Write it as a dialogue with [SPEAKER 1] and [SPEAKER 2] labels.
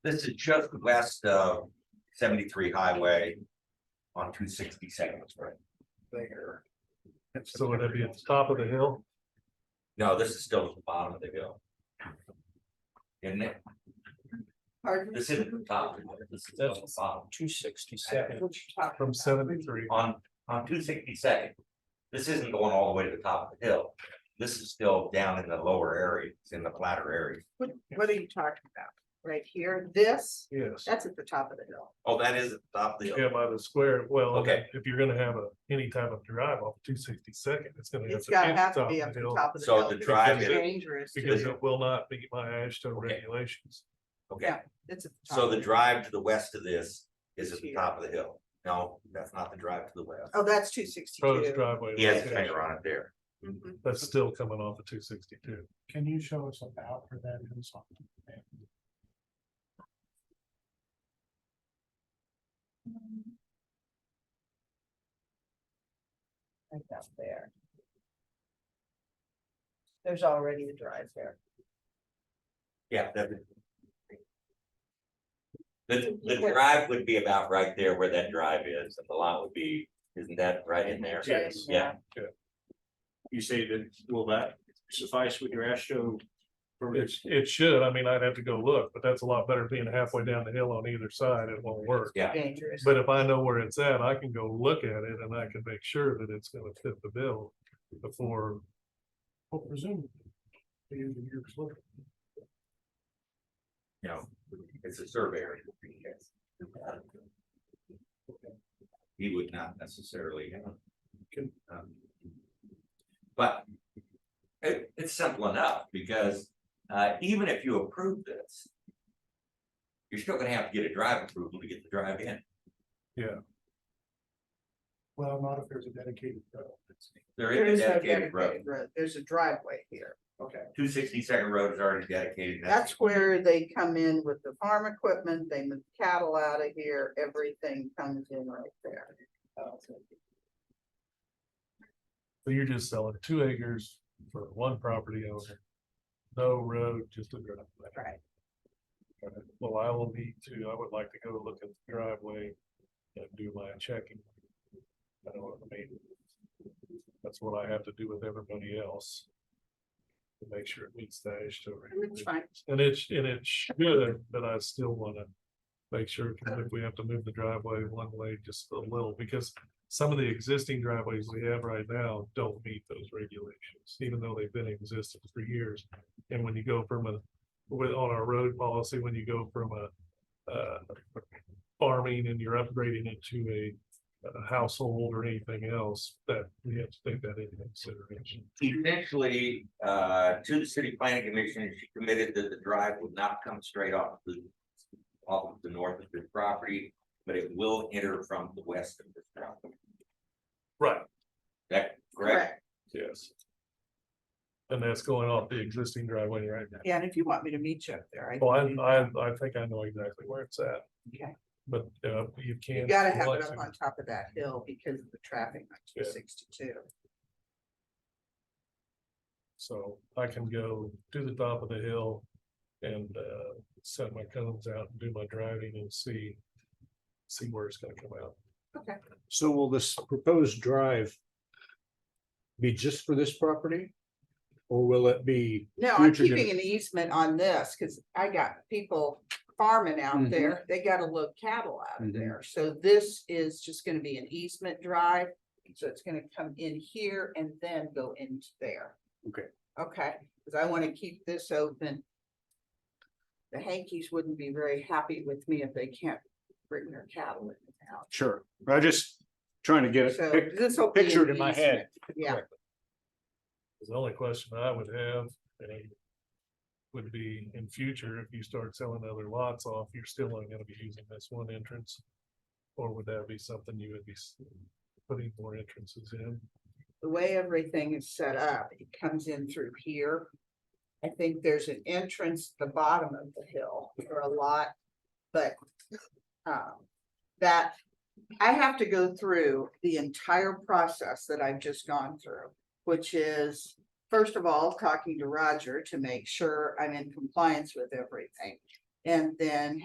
[SPEAKER 1] This is just west of seventy-three highway on two sixty-seven, right? There.
[SPEAKER 2] So would that be at the top of the hill?
[SPEAKER 1] No, this is still at the bottom of the hill. Isn't it?
[SPEAKER 3] Pardon?
[SPEAKER 1] This isn't the top, this is still the bottom.
[SPEAKER 4] Two sixty-seven.
[SPEAKER 3] Which top?
[SPEAKER 2] From seventy-three,
[SPEAKER 1] on, on two sixty second. This isn't going all the way to the top of the hill. This is still down in the lower area, it's in the flatter area.
[SPEAKER 3] What, what are you talking about? Right here, this,
[SPEAKER 2] yes.
[SPEAKER 3] that's at the top of the hill.
[SPEAKER 1] Oh, that is at the top of the hill.
[SPEAKER 2] Yeah, by the square, well,
[SPEAKER 1] Okay.
[SPEAKER 2] if you're gonna have a, any type of drive off two sixty-second, it's gonna.
[SPEAKER 3] It's
[SPEAKER 2] to
[SPEAKER 3] gotta
[SPEAKER 2] hit
[SPEAKER 3] have to
[SPEAKER 2] top
[SPEAKER 3] be
[SPEAKER 2] of
[SPEAKER 3] up
[SPEAKER 2] the
[SPEAKER 3] the
[SPEAKER 2] hill
[SPEAKER 3] top of the
[SPEAKER 1] So
[SPEAKER 3] hill.
[SPEAKER 1] the
[SPEAKER 3] because
[SPEAKER 1] drive
[SPEAKER 3] It's
[SPEAKER 1] is-
[SPEAKER 3] dangerous. to
[SPEAKER 2] Because
[SPEAKER 3] do.
[SPEAKER 2] it will not meet my Ashton
[SPEAKER 1] Okay.
[SPEAKER 2] regulations.
[SPEAKER 1] Okay,
[SPEAKER 3] yeah. It's at the
[SPEAKER 1] so
[SPEAKER 3] top.
[SPEAKER 1] the drive to the west of this is at the top of the hill. No, that's not the drive to the west.
[SPEAKER 3] Oh, that's two
[SPEAKER 2] Proposed
[SPEAKER 3] sixty-two. Mm-hmm.
[SPEAKER 2] driveway.
[SPEAKER 1] He has a
[SPEAKER 2] location.
[SPEAKER 1] finger on it there.
[SPEAKER 2] That's still coming off the two sixty-two.
[SPEAKER 5] Can you show us about for that hillside?
[SPEAKER 3] Right up there. There's already the drive there.
[SPEAKER 1] Yeah, that. The, the drive would be about right there where that drive is, and the lot would be, isn't that right in there?
[SPEAKER 3] Yes.
[SPEAKER 1] Yeah,
[SPEAKER 4] You say that, will that suffice with your Astro?
[SPEAKER 2] It, it should, I mean, I'd have to go look, but that's a lot better than being halfway down the hill on either side, it won't work.
[SPEAKER 1] yeah.
[SPEAKER 3] Dangerous.
[SPEAKER 2] But if I know where it's at, I can go look at it and I can make sure that it's gonna fit the bill before.
[SPEAKER 5] Well, presumably. The engineers look.
[SPEAKER 1] you know, it's a surveyor. He would not necessarily, you know. um, But it, it's simple enough because, uh, even if you approve this, you're still gonna have to get a drive approval to get the drive in.
[SPEAKER 5] Well, not if there's a dedicated road.
[SPEAKER 1] There
[SPEAKER 3] There
[SPEAKER 1] is
[SPEAKER 3] is
[SPEAKER 1] a
[SPEAKER 3] no
[SPEAKER 1] dedicated road.
[SPEAKER 3] dedicated road. Thead. There's a driveway here.
[SPEAKER 5] Okay.
[SPEAKER 1] Two sixty second road is already dedicated.
[SPEAKER 3] That's where they come in with the farm equipment, they move cattle out of here, everything comes in right there.
[SPEAKER 2] So you're just selling two acres for one property owner. No road, just a driveway.
[SPEAKER 3] Right.
[SPEAKER 2] Okay, Well, I will need to, I would like to go look at the driveway and do my checking. I know what I mean. That's what I have to do with everybody else. To make sure it meets the Ashto.
[SPEAKER 3] It's fine.
[SPEAKER 2] And it's, and it should, but I still wanna make sure if we have to move the driveway one way just a little, because some of the existing driveways we have right now don't meet those regulations, even though they've been existing for years. And when you go from a, with, on our road policy, when you go from a, uh, farming and you're upgrading it to a a household or anything else, that we have to take that into consideration.
[SPEAKER 1] Eventually, uh, to the city planning commission, she committed that the drive would not come straight off the. Off of the north of the property, but it will enter from the west of the property,
[SPEAKER 2] Right.
[SPEAKER 1] that correct?
[SPEAKER 3] Correct.
[SPEAKER 2] Yes. And that's going off the existing driveway right now.
[SPEAKER 3] Yeah, and if you want me to meet you up there, I.
[SPEAKER 2] Well,
[SPEAKER 3] can do
[SPEAKER 2] I,
[SPEAKER 3] that.
[SPEAKER 2] I, I think I know exactly where it's at,
[SPEAKER 3] Okay.
[SPEAKER 2] but, uh, you can.
[SPEAKER 3] You gotta
[SPEAKER 2] if
[SPEAKER 3] have
[SPEAKER 2] you'd
[SPEAKER 3] it
[SPEAKER 2] like
[SPEAKER 3] up
[SPEAKER 2] to.
[SPEAKER 3] on top of that hill because of the traffic on
[SPEAKER 2] Yeah.
[SPEAKER 3] two sixty-two.
[SPEAKER 2] So I can go to the top of the hill and, uh, set my cones out and do my driving and see, see where it's gonna come out.
[SPEAKER 6] So will this proposed drive be just for this property? Or will it be,
[SPEAKER 3] No, I'm
[SPEAKER 6] Future gener-
[SPEAKER 3] keeping an easement on this because I got people farming out
[SPEAKER 6] Mhm.
[SPEAKER 3] there. They gotta load cattle out of
[SPEAKER 6] Mhm.
[SPEAKER 3] there. So this is just gonna be an easement drive. So it's gonna come in here and then go into there.
[SPEAKER 6] Okay.
[SPEAKER 3] Okay, because I want to keep this open. The Hankies wouldn't be very happy with me if they can't bring their cattle in and out.
[SPEAKER 6] sure, I just trying to get it
[SPEAKER 3] So
[SPEAKER 6] pic-
[SPEAKER 3] this will.
[SPEAKER 6] pictured in my head.
[SPEAKER 3] Yeah,
[SPEAKER 2] The only question I would have, and would be in future, if you start selling other lots off, you're still only gonna be using this one entrance? Or would that be something you would be s- putting more entrances in?
[SPEAKER 3] the way everything is set up, it comes in through here. I think there's an entrance at the bottom of the hill for a lot, but um, that I have to go through the entire process that I've just gone through, which is first of all, talking to Roger to make sure I'm in compliance with everything. And then